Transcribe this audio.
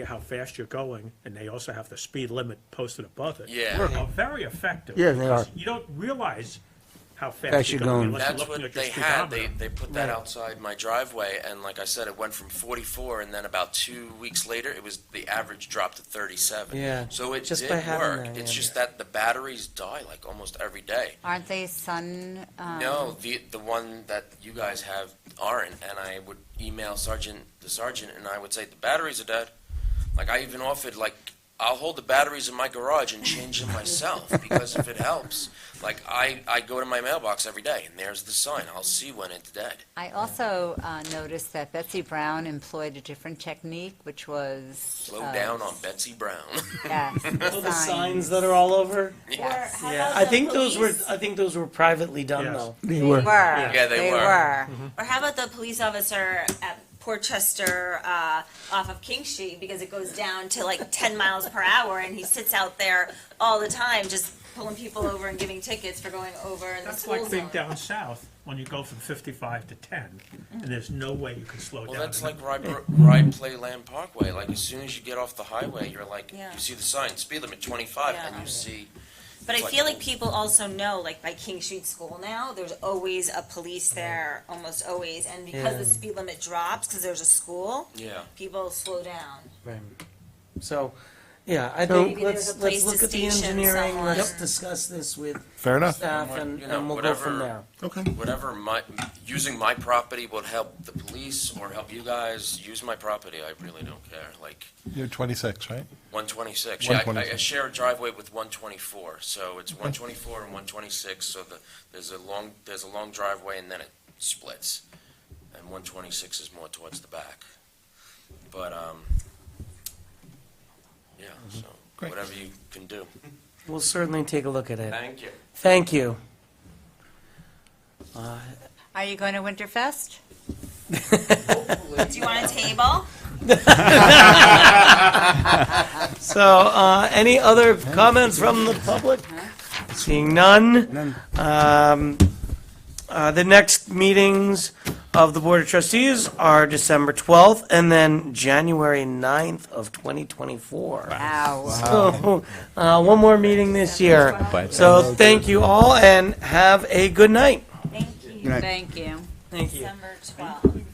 how fast you're going, and they also have the speed limit posted above it. Yeah. Are very effective. Yeah, they because are. You don't realize how Fast fast you're you're going going. unless you're That's looking what at your they had. They, speedometer. they put that outside my driveway, and like I said, it went from 44, and then about two weeks later, it was the average dropped to 37. Yeah, So it just did by having work. that, It's yeah. just that the batteries die like almost every day. Aren't they sun? Um, No, the the one that you guys have aren't, and I would email sergeant the sergeant, and I would say the batteries are dead. Like I even offered, like I'll hold the batteries in my garage and change them myself because if it helps, like I I go to my mailbox every day, and there's the sign. I'll see when it's dead. I also uh, noticed that Betsy Brown employed a different technique, which was Slow uh, down on Betsy Brown. Yes, All the signs that are all over. Yes. Yeah, I think those were, I think those were privately done Yes. though. They They were. Mm-hmm. were. Yeah, they were. Or how about the police officer at Portchester uh, off of King Street because it goes down to like 10 miles per hour and he sits out there all the time just pulling people over and giving tickets for going over in the That's school like zone. being down south, when you go from fifty-five to ten, and there's no way you can slow down. Well, that's in it. like Rye, Bro- Rye Play Land Parkway. Like, as soon as you get off the highway, you're like, Yeah. you see the sign, speed limit 25, Yeah. and you see. But I feel like people also know, like by King Street School now, there's always a police there, almost always. And because the Yeah. speed limit drops because there's a school, Yeah. people slow down. Right. So, yeah, I So- think Maybe there's let's, a let's place look to at the station engineering, someone. let's Yep. discuss this with Fair enough. staff What- and, you know, and we'll go from whatever- there. Okay. Whatever my, using my property will help the police or help you guys use my property. I really don't care. Like, You're 26, right? 126. Yeah, I- I, I 126. share a driveway with 124. So it's 124 and 126. So the, there's a long, there's a long driveway and then it splits. And 126 is more towards the back. But, um, yeah, so Great. whatever you can do. We'll certainly take a look at it. Thank you. Thank you. Are you going to Winterfest? Do you want a table? So, uh, any other comments from the public? Seeing none. Um, uh, the next meetings of the Board of Trustees are December 12th and then January 9th of 2024. Ow. So, uh, one more meeting this year. So thank you all and have a good night. Thank you. night. Thank you. Thank you. December 12th.